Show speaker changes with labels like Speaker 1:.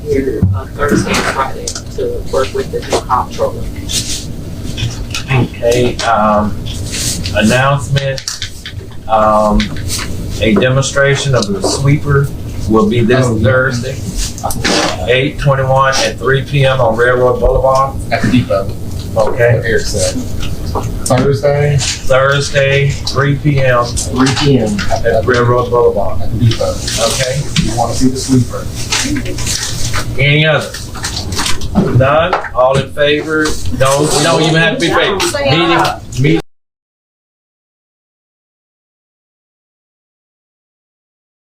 Speaker 1: here on Thursday and Friday to work with the new comptroller.
Speaker 2: Okay, um, announcement, um, a demonstration of the sweeper will be this
Speaker 3: Oh, yeah.
Speaker 2: Thursday, eight twenty-one at three P M on Railroad Boulevard,
Speaker 3: At the depot,
Speaker 2: okay?
Speaker 3: Eric said. Thursday,
Speaker 2: Thursday, three P M
Speaker 3: three P M. At
Speaker 2: at
Speaker 3: the
Speaker 2: Railroad Boulevard,
Speaker 3: depot.
Speaker 2: okay?
Speaker 3: If you wanna see the sweeper.
Speaker 2: Any others? None? All in favor? No, you don't even have to be favor. Meeting,